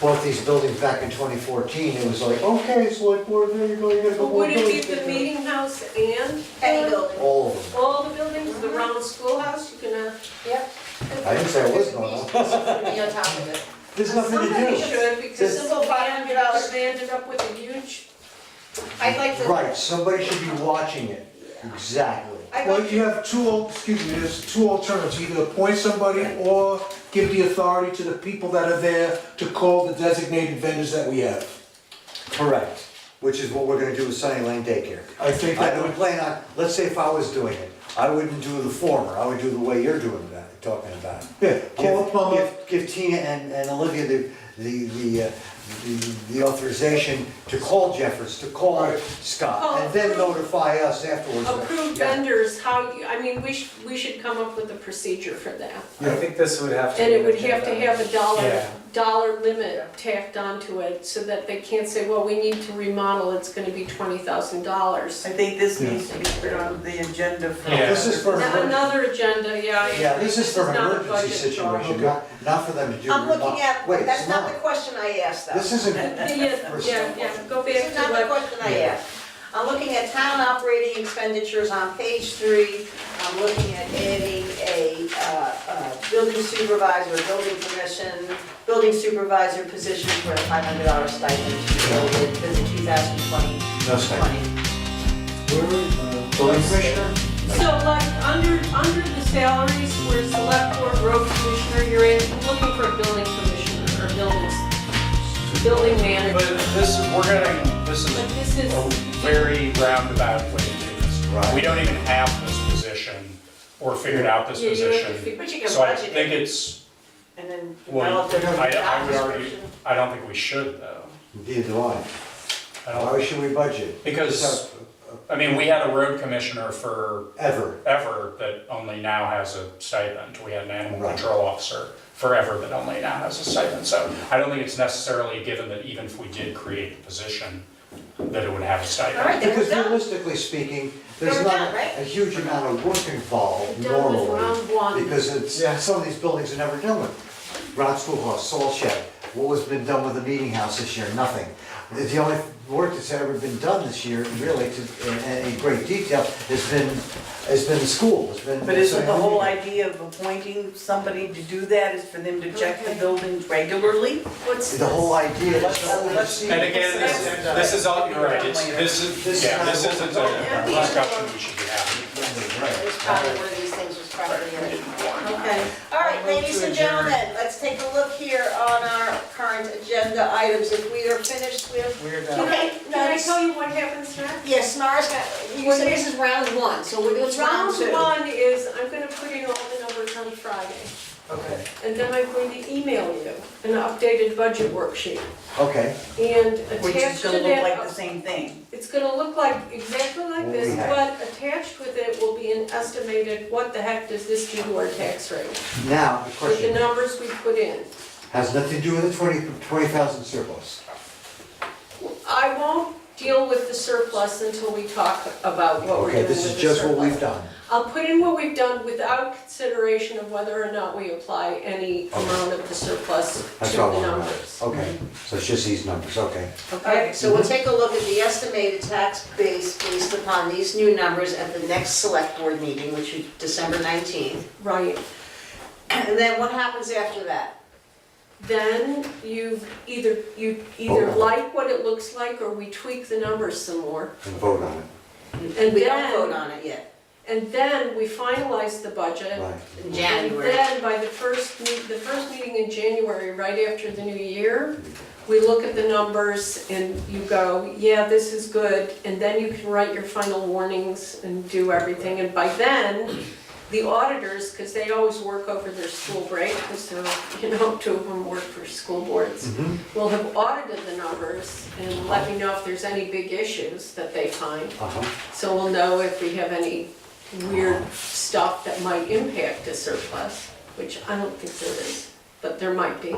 bought these buildings back in 2014, it was like, okay, select board, there you go, you gotta go. But would build it be the buildings. meeting house and Any the- building, All of them. all the buildings, the round schoolhouse, you can, uh, yep. I didn't say I was going to. Be on top of it. There's nothing to somebody do. should, because Just- simple five hundred dollars, they ended up with a huge, I'd like to. Right, somebody should be watching it, exactly. I Well, got you have two, al- excuse me, there's two alternatives, either appoint somebody or give the authority to the people that are there to call the designated vendors that we have. Correct. Which is what we're gonna do with Sunny Lane Daycare. I think I that would would, plan on, let's say if I was doing it, I wouldn't do the former, I would do the way you're doing that, talking about. it. yeah, call a Give- plumber, give- Give Tina and, and Olivia the, the, the, uh, the- the authorization to call Jeffers, to call Right. Scott, Oh, and then approved. notify us afterwards. approved Yeah. vendors, how, you- I mean, we should, we should come up with a procedure for that. I think this would have to. And be it would an have to agenda. have a dollar, Yeah. dollar limit tacked onto it, so that they can't say, well, we need to remodel, it's gonna be twenty thousand dollars. I think this Yeah. needs to be put on the agenda for. Yeah. This is for, an emer- Another agenda, yeah. I yeah, agree. this is for an not a emergency budget problem. situation, not, not for them to do. I'm remod- looking at, Wait, it's that's not the not, question I asked though. this isn't, Yeah, yeah, yeah, go This back is not to the what, question I asked. I'm looking at town operating expenditures on page three. I'm looking at adding a, uh, uh, building supervisor, building commission, building supervisor position for a five hundred dollar stipend to be awarded for the two thousand twenty, no, sorry. twenty. Building commissioner? so like, under, under the salaries where select board road commissioner, you're in, looking for a building commissioner or buildings, building But manager. this, we're gonna, this But is this is, a very roundabout way to do this. Right. We don't even have this position or figured out this yeah, you have to position. figure. But you can So I budget think it it's, and then well, develop it. I, I would argue, I don't think we should though. Neither do I. I don't- Why should we budget? Because, I mean, we had a road commissioner for Ever, ever that only now has a stipend. We had an animal Right. control officer forever that only now has a stipend. So I don't think it's necessarily given that even if we did create the position, that it would have a All right, stipend. then we're because done. realistically speaking, there's They're not done, right? a huge amount of work involved We're done with normally. round one. Because it's, some of these buildings are never done with. Rod Schoolhouse, Salt Shed, what has been done with the meeting house this year? Nothing. The- The only work that's ever been done this year, really, to, in any great detail, has been, has been the school, has been. But isn't the whole idea of appointing somebody to do that is for them to check the buildings regularly? what's The whole idea is to oversee. And again, this, this is all, you're right, it's, this is, yeah, this isn't a discussion we should be having. It's probably one of these things was probably in it. Okay. All right, ladies and gentlemen, let's take a look here on our current agenda items. If we are finished with, We're Can done. I, can I tell you what happens next? yes, Mars, you Well, said- this is round one, so we're doing round Round two. one is, I'm gonna put in all the numbers on Friday, Okay. and then I'm going to email you an updated budget worksheet. Okay, And Which attached is to gonna look like the that, same thing. it's gonna look like exactly like What this, we have. but attached with it will be an estimated, what the heck does this do to our tax rate? now, the With the question numbers we put in. has nothing to do with the twenty, twenty thousand surplus. I won't deal with the surplus until we talk about what we're Okay, doing with the this is just what we've surplus. done. I'll put in what we've done without consideration of whether or not we apply any amount of the surplus That's to what I the want to know. numbers. Okay, so it's just these numbers, okay. Okay, so we'll take a look at the estimated tax base based upon these new numbers at the next select board meeting, which is December 19th. Right, And then what happens after that? then you either, you either Vote on it. like what it looks like or we tweak the numbers some more. And vote on it. And We don't then- vote on it yet, And then we finalize the budget. Right. in And January. then by the first, meet- the first meeting in January, right after the new year, we look at the numbers and you go, yeah, this is good. And then you can write your final warnings and do everything. And by then, the auditors, because they always work over their school break, because they're, you know, two of them work for school boards, Mhm. will have audited the numbers and let me know if there's any big issues that they find. Uh-huh. So we'll know if we have any weird stuff that might impact a surplus, which I don't think there is, but there might be.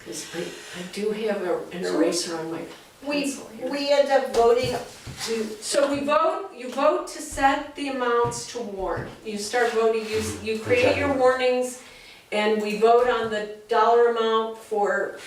Because I, I do have a- an eraser on my We, pencil here. we end up voting to So we vote, you vote to set the amounts to warn. You start voting, you, you create your warnings, and we vote on the dollar amount for